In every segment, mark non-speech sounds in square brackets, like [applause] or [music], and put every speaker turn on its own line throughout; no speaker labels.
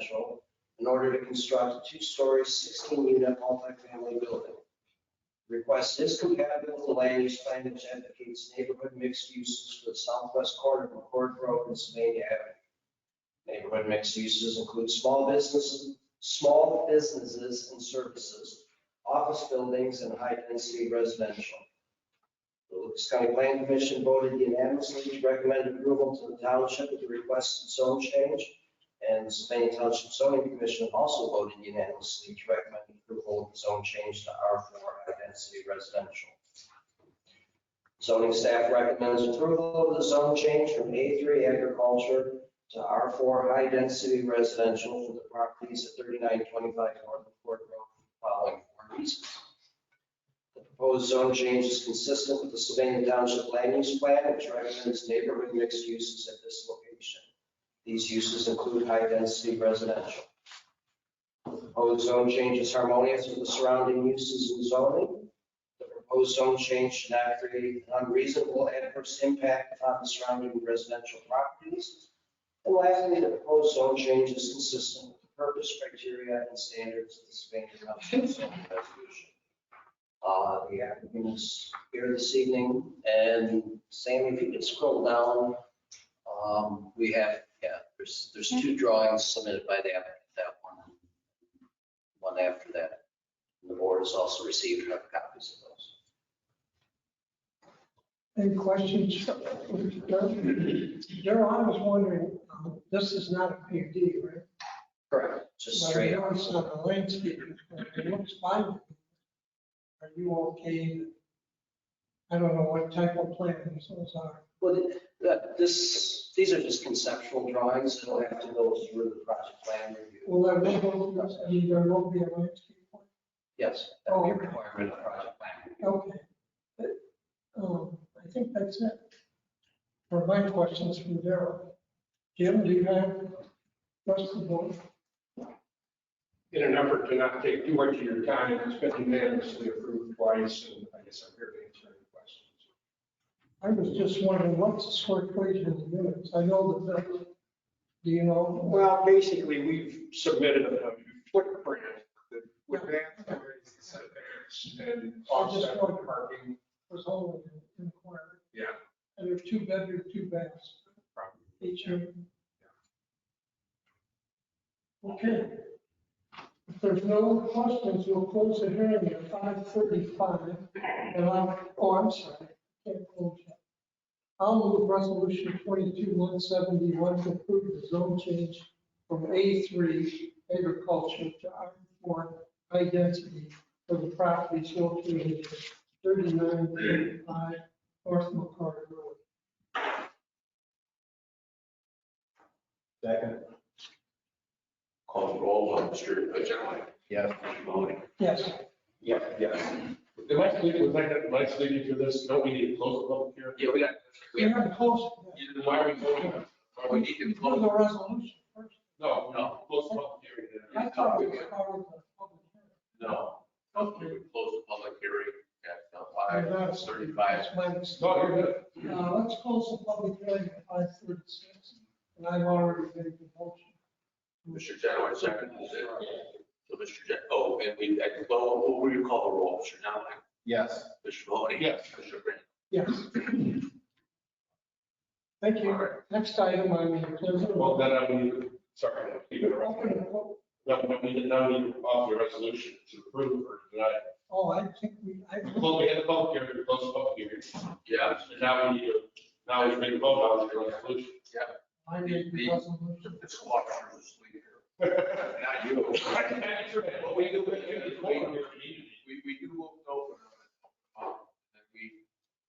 commercial in order to construct a two-story, 16-unit multifamily building. Request is compatible with the land use plan which advocates neighborhood mixed uses for the southwest corner of McCord Road and Sylvania Avenue. Neighborhood mixed uses include small businesses, small businesses and services, office buildings, and high-density residential. The Lucas County Plan Commission voted unanimously to recommend approval to the township of the requested zone change. And the Sylvania Township Zoning Commission also voted unanimously to recommend approval of the zone change to R4 high-density residential. Zoning staff recommends approval of the zone change from A3 agriculture to R4 high-density residential for the properties at 3925 North Court Road, for the following four reasons. The proposed zone change is consistent with the Sylvania Township Land Use Plan, which recommends neighborhood mixed uses at this location. These uses include high-density residential. The proposed zone change is harmonious with the surrounding uses and zoning. The proposed zone change should not create an unreasonable adverse impact on the surrounding residential properties. And lastly, the proposed zone change is consistent with the purpose, criteria, and standards of the Sylvania Township zoning resolution. Uh, The applicant is here this evening, and Sam, if you could scroll down, um, we have, yeah, there's, there's two drawings submitted by the applicant, that one, and one after that. The board has also received hard copies of those.
Any questions? Daryl, I was wondering, um, this is not a PUD, right?
Correct. Just straight
I know
up.
It's not a landscape, it looks fine. Are you okay? I don't know what type of plans those are.
Well, th- that, this, these are just conceptual drawings, that'll have to go through the project plan review.
Will there be, I mean, there will be a landscape? plan?
Yes, that'll be a
Oh, okay.
requirement of project plan review.
Okay. Um, I think that's it. For my questions from Daryl. Jim, do you have, rest of the board?
in an effort to not take too much of your time, it's been unanimously approved twice, and I guess I'm here to answer any questions.
I was just wondering, what's the square footage of the units? I know that, the- do you know?
Well, basically, we've submitted a footprint that would match the setbacks and offset Oh, the parking.
Was only an inquiry.
Yeah.
And there are two bedrooms, two baths,
probably.
each unit. Okay. If there's no questions, we'll close the hearing at five thirty-five. And I'm, oh, I'm sorry, I can't close yet. I'll move resolution twenty-two one seventy-one to approve the zone change from A three agriculture to R four high density for the properties located at thirty-nine thirty-five North McCarter Road.
Second. Call the roll on Mr. Ajay. Yes. Mr. Maloney.
Yes.
Yes. Yes.
Am I sleeping, was I, am I sleeping through this? No, we need to close the public hearing.
Yeah, we got, we
We
have,
haven't closed. yet.
Then Why are we voting? on it? Why
we
we-
need
Do
to
the
close,
resolution first.
No, no, close the public hearing. then.
I thought we were already in public hearing.
no, we would close the public hearing at uh,
That's-
5:35.
that's my mistake.
No, you're good.
Uh, let's close the public hearing at five thirty-six, and I've already made the motion.
Mr. Genoway, second, is it? So Mr. Gen, oh, and we, I can go, what were you call the roll, Mr. Genoway?
Yes.
Mr. Mahoney?
Yes.
Mr. Grant?
Yes. Thank
All
you.
right.
Next item, I mean, there's a.
Well, then I need, sorry, I'm keeping it
Open
around.
the vote.
No, no, we need, now we need to offer a resolution to approve or deny.
Oh, I think we, I,
Well, we had the public hearing, we closed the public hearing.
Yeah,
And now we need to, now we need to vote on the resolution.
I made the resolution.
it's a lot of us leave here. Not you.
But we do, we do, we do.
[laughs] We, we do open up, uh, and we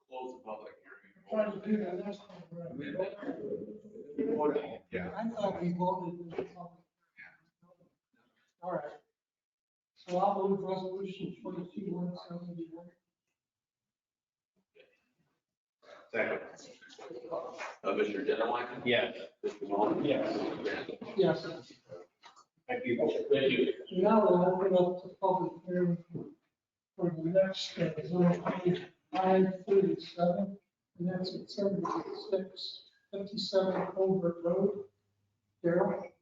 close the public hearing.
I tried to do that last time. right?
Yeah.
I thought we voted. in the public. All right. So I'll move resolution twenty-two one seventy-one.
Second.
Uh, Mr. Genoway?
Yes.
Mr. Mahoney?
Yes.
Mr. Grant?
Yes.
Thank you.
Thank you.
Now we'll open up the public hearing for the next uh, zone change, five thirty-seven, and that's at seventy-six fifty-seven Colbert Road. Darrell?